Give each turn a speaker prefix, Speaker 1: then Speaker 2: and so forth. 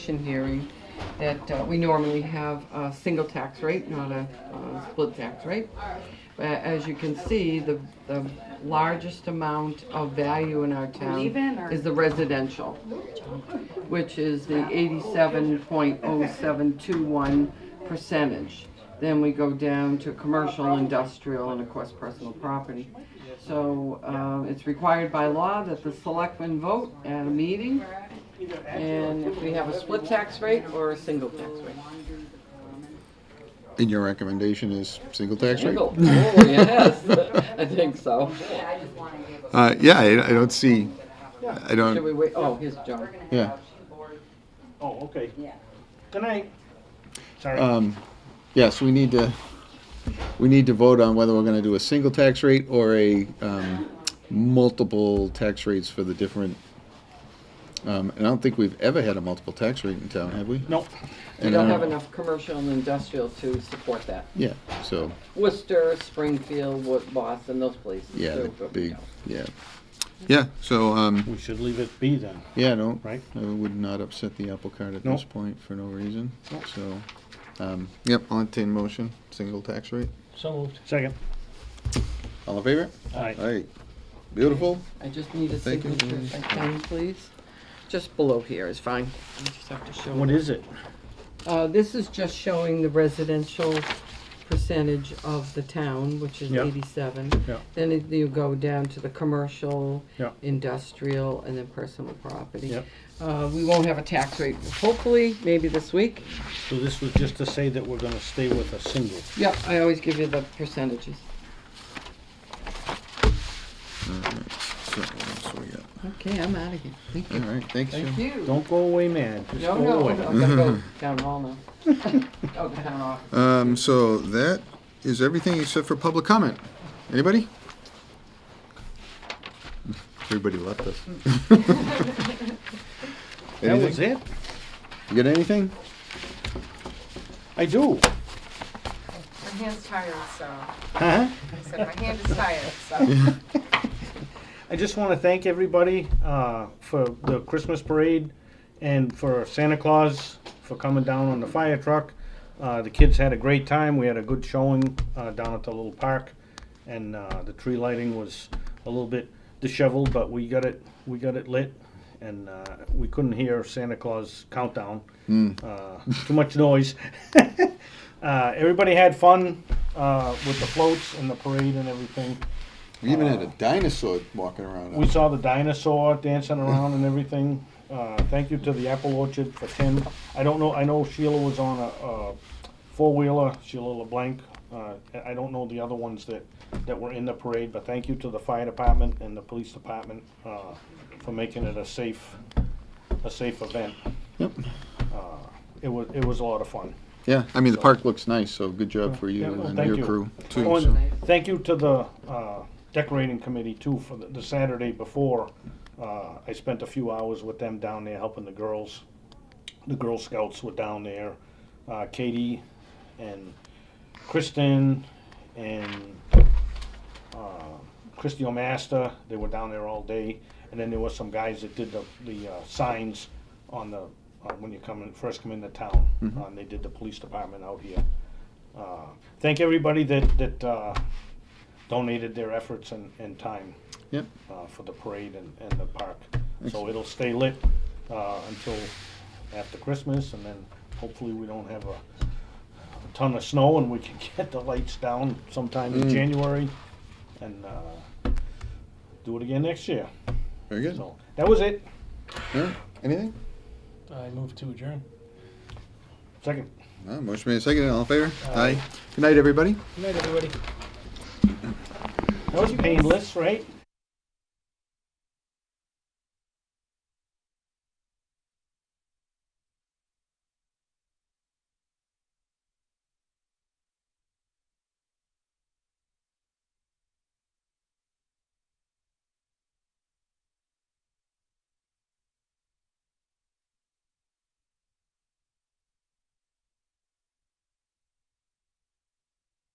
Speaker 1: Commission hearing that uh, we normally have a single tax rate, not a uh, split tax rate. But as you can see, the, the largest amount of value in our
Speaker 2: Leave
Speaker 1: town
Speaker 2: in or-
Speaker 1: is the residential, which is the eighty-seven point oh seven two one percentage. Then we go down to commercial, industrial, and of course, personal property. So uh, it's required by law that the selectmen vote at a meeting and if we have a split tax rate or a single tax rate.
Speaker 3: And your recommendation is single tax rate?
Speaker 1: Single, oh, yes, I think so.
Speaker 3: Uh, yeah, I, I don't see, I
Speaker 1: Should we
Speaker 3: don't,
Speaker 1: wait, oh, here's John.
Speaker 3: yeah.
Speaker 4: Oh, okay. Yeah. Good night. Sorry.
Speaker 3: Um, yes, we need to, we need to vote on whether we're gonna do a single tax rate or a, um, multiple tax rates for the different, um, and I don't think we've ever had a multiple tax rate in town, have we?
Speaker 4: Nope.
Speaker 1: We
Speaker 3: And uh, I
Speaker 1: don't have enough commercial and industrial to support that.
Speaker 3: Yeah, so,
Speaker 1: Worcester, Springfield, Wo- Boston, those places.
Speaker 3: yeah,
Speaker 1: they're-
Speaker 3: the big, yeah. Yeah, so, um,
Speaker 4: We should leave it be then.
Speaker 3: yeah, no, I
Speaker 4: Right.
Speaker 3: would not upset the apple cart at
Speaker 4: No.
Speaker 3: this point for no reason, so, um, yep, I'll entertain motion, single tax rate.
Speaker 4: So moved. Second.
Speaker 3: All in favor?
Speaker 4: All right.
Speaker 3: All right. Beautiful.
Speaker 1: I just need a
Speaker 3: Thank you.
Speaker 1: signature, if I can, please. Just below here is fine. I just have to show.
Speaker 4: What is it?
Speaker 1: Uh, this is just showing the residential percentage of the town, which is
Speaker 4: Yeah.
Speaker 1: eighty-seven.
Speaker 4: Yeah.
Speaker 1: Then it- you go down to the commercial,
Speaker 4: Yeah.
Speaker 1: industrial, and then personal property.
Speaker 4: Yeah.
Speaker 1: Uh, we won't have a tax rate, hopefully, maybe this week.
Speaker 4: So this was just to say that we're gonna stay with a single.
Speaker 1: Yep, I always give you the percentages.
Speaker 3: All right. So what else we got?
Speaker 1: Okay, I'm out of here. Thank you.
Speaker 3: All right. Thanks, Jim.
Speaker 1: Thank you.
Speaker 4: Don't go away, man. Just
Speaker 1: No,
Speaker 4: go
Speaker 1: no, I
Speaker 4: away.
Speaker 1: gotta go down hall now. Oh, down off.
Speaker 3: Um, so that is everything except for public comment. Anybody? Everybody left us.
Speaker 4: That was
Speaker 3: Anything?
Speaker 4: it?
Speaker 3: You got anything?
Speaker 4: I do.
Speaker 5: My hand's tired, so,
Speaker 4: Huh?
Speaker 5: I said, my hand is tired, so.
Speaker 4: I just wanna thank everybody, uh, for the Christmas parade and for Santa Claus for coming down on the fire truck. Uh, the kids had a great time. We had a good showing, uh, down at the little park. And, uh, the tree lighting was a little bit disheveled, but we got it, we got it lit. And, uh, we couldn't hear Santa Claus countdown. Uh, too much noise. uh, everybody had fun, uh, with the floats and the parade and everything.
Speaker 3: We even had a dinosaur walking around.
Speaker 4: We saw the dinosaur dancing around and everything. Uh, thank you to the Apple Orchard for Tim. I don't know, I know Sheila was on a, a four-wheeler, Sheila LeBlanc. Uh, I- I don't know the other ones that, that were in the parade, but thank you to the fire department and the police department, uh, for making it a safe, a safe event. Uh,
Speaker 3: Yep.
Speaker 4: It was, it was a lot of fun.
Speaker 3: Yeah. I mean, the park looks nice, so good job for you
Speaker 4: Yeah, well,
Speaker 3: and
Speaker 4: thank
Speaker 3: your
Speaker 4: you.
Speaker 3: crew too.
Speaker 4: Oh, and
Speaker 3: so.
Speaker 4: Thank you to the uh, decorating committee too, for the the Saturday before. Uh, I spent a few hours with them down there helping the girls. The Girl Scouts were down there. Uh, Katie and Kristen and uh, Christy O'Master, they were down there all day. And then there were some guys that did the, the uh, signs on the, uh, when you come in, first come into town.
Speaker 3: Mm-hmm.
Speaker 4: Uh, and They did the police department out here. Uh, Thank everybody that, that uh, donated their efforts and, and time
Speaker 3: Yep.
Speaker 4: uh, for the parade and, and the park. So it'll stay lit uh, until after Christmas, and then hopefully we don't have a a ton of snow and we can get the lights down sometime in January and uh, do it again next year.
Speaker 3: Very good.
Speaker 4: So that was it.
Speaker 3: All right. Anything?
Speaker 6: I move to adjourn.
Speaker 4: Second.
Speaker 3: Uh, motion made second. All in favor? Aye. Good night, everybody.
Speaker 6: Good night, everybody.
Speaker 4: That was painless, right?